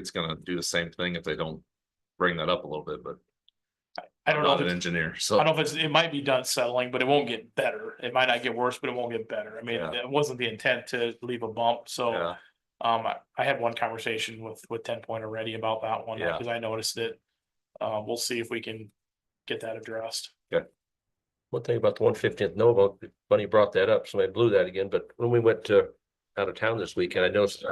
it's gonna do the same thing if they don't bring that up a little bit, but I I'm don't know, not if an it's- engineer, I so. don't know if it's, it might be done settling, but it won't get better. It might not get worse, but it won't get better. I mean, Yeah. it wasn't the intent to leave a bump, so. Yeah, Um, I, I had one conversation with, with Ten Point already about that one, Yeah. because I noticed it. Uh, we'll see if we can get that addressed. One thing about the one fifteenth Nova, Bunny brought that up, so I blew that again, but when we went to out of town this weekend, I noticed.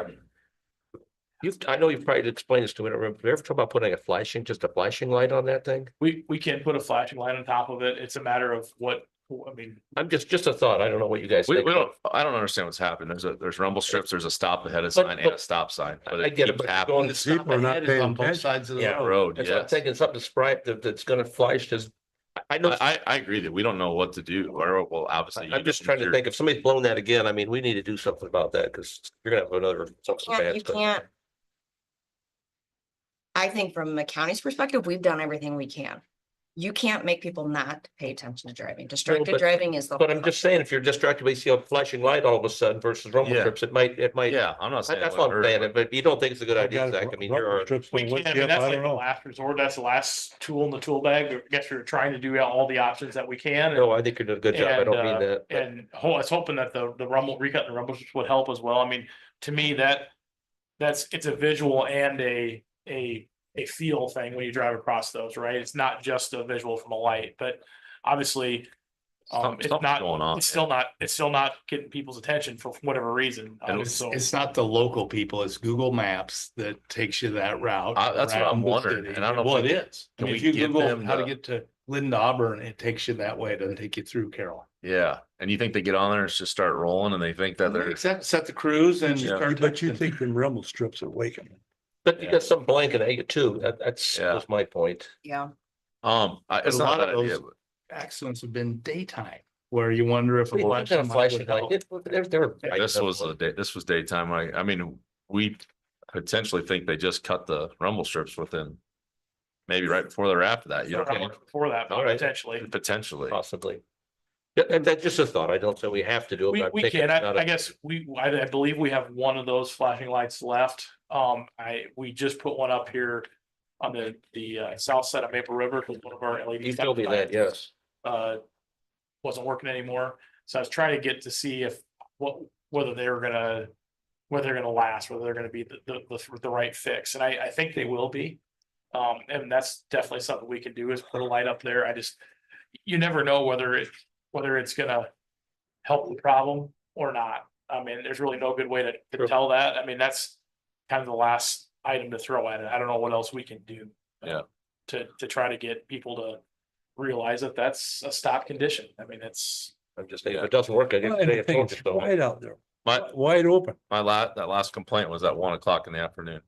You've, I know you've probably explained this to me, I don't remember, you ever talk about putting a flashing, just a flashing light on that thing? We, we can put a flashing light on top of it. It's a matter of what, I mean, I'm just, just a thought, I don't know what you guys we, think. we don't, I don't understand what's happened. There's a, there's rumble strips, there's a stop ahead of sign and a but- stop sign. I but I get it, keeps but happening. going to stop People are not ahead is paying on both attention. sides of the Yeah, road. road, That's what I'm yes. thinking, something bright that, that's gonna flash, just, I- I know, I, I, I agree that we don't know what to do, or, well, obviously. you I'm just don't- trying to you're- think, if somebody's blown that again, I mean, we need to do something about that, because you're gonna have another, something can't- bad. You can't. I think from the county's perspective, we've done everything we can. You can't make people not pay attention to driving. Distracted but- driving is the. But whole I'm just saying, if you're distracted by see a flashing light all of a sudden versus rumble Yeah. strips, it might, it might. Yeah, I'm not saying. That's it what I'm wouldn't hurt, saying, but if you don't think it's a good I idea, got Zach, I mean, you're, rubber our- strips we on can, wood I mean, chip, that's I like don't the know. last resort. That's the last tool in the tool bag. I guess we're trying to do out all the options that we can. and- no, I think you're doing a good job, I And, don't mean uh, that. but- And ho- I was hoping that the, the rumble, recut and rumble strips would help as well. I mean, to me, that. That's, it's a visual and a, a, a feel thing when you drive across those, right? It's not just a visual from a light, but obviously. Um, Something- it's something's not, going on, it's yeah. still not, it's still not getting people's attention for whatever reason. um, It's, so- it's not the local people, it's Google Maps that takes you that route. I- that's what I'm around the wondering, city. and I don't know Well, if we- it is. I can mean, we if you give them Google how to the- get to Lynn Auburn, it takes you that way, it doesn't take you through Carroll. Yeah, and you think they get on there and it's just start rolling and they think that they're, Except set the cruise and. Yeah. start But you texting. think them rumble strips are waking. But you got some blank in you too, that, that's, Yeah. that's my point. Yeah, um, I, it's a not a lot bad of idea, those- but Accidents have been daytime, where you wonder if. a We light got a somebody would flashing light, help. it- there- there were Yeah, lights this up. was the day, this was daytime. I, I mean, we potentially think they just cut the rumble strips within. Maybe right before they're after that, you so don't, I'm know, looking For that, All right. potentially. potentially. Possibly. Yeah, and that's just a thought, I don't say we have to do it. We, but I'm we thinking can, it's not I, a- I guess, we, I, I believe we have one of those flashing lights left. Um, I, we just put one up here on the, the, uh, south side of Maple River, because one of our E LED. You told me lights, that, yes. Uh, wasn't working anymore, so I was trying to get to see if, what, whether they were gonna, whether they're gonna last, whether they're gonna be the, the, the, the right fix, and I, I think they will be. Um, and that's definitely something we can do is put a light up there. I just, you never know whether it, whether it's gonna help the problem or not. I mean, there's really no good way to, to Sure. tell that. I mean, that's kind of the last item to throw at it. I don't know what else we can do. Yeah. To, to try to get people to realize that that's a stop condition. I mean, it's, I'm just saying, Yeah. if it doesn't work, I guess today I told you It's so. wide out there, My, wide open. my la- that last complaint was at one o'clock in the afternoon.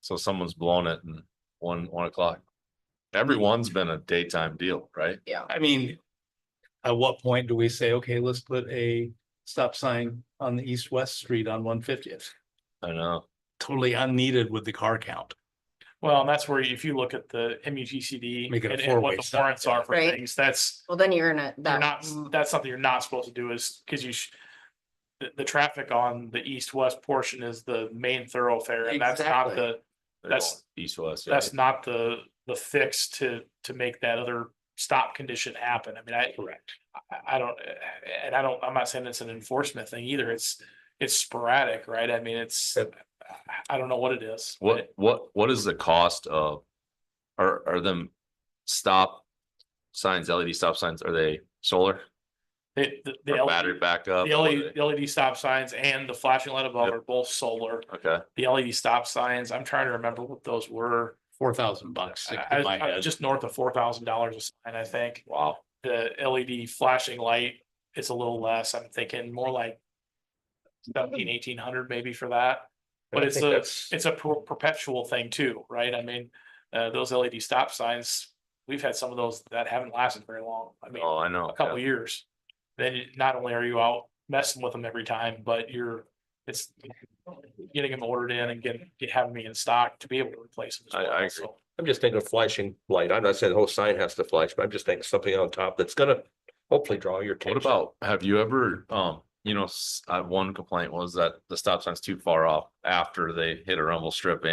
So someone's blown it and one, one o'clock. Everyone's been a daytime deal, right? yeah. I mean, at what point do we say, okay, let's put a stop sign on the east-west street on one fiftieth? I know. Totally unneeded with the car count. well, and that's where if you look at the M U G C D Make it a and and what four-way the stop, warrants are for Right. things, that's, Well, then you're in a, you're that, not, that's something you're not supposed to do is, because you sh- the, the traffic on the east-west portion is the main thoroughfare and that's not Exactly. the They're That's- going East west. yeah. that's not the, the fix to, to make that other stop condition happen. I mean, I. Correct. I, I don't, and I don't, I'm not saying it's an enforcement thing either. It's, it's sporadic, right? I mean, it's, Yep. I don't know what it is. but What, what, what is the cost of, are, are them stop signs, LED stop signs, are they solar It, the, the or battery LED, backup? the E Are LED, the LED stop signs and the flashing light above Yep. are both solar. they- Okay, The LED stop signs, I'm trying to remember what those were. Four thousand bucks. I- stick I- in my I- head. just north of four thousand dollars a sign, I think. Wow. The LED flashing light is a little less. I'm thinking more like seventeen, eighteen hundred maybe for that. But I it's think a, that's- it's a per- perpetual thing too, right? I mean, uh, those LED stop signs, we've had some of those that haven't lasted very long. I mean, oh, I know. a couple yeah. years. Then you- not only are you out messing with them every time, but you're, it's getting them ordered in and getting, having me in stock to be able to replace them. as I- well, I agree. so. I'm just thinking of flashing light. I'm not saying the whole sign has to flash, but I'm just thinking something on top that's gonna hopefully draw your What attention. about, have you ever, um, you know, s- uh, one complaint was that the stop sign's too far off after they hit a rumble strip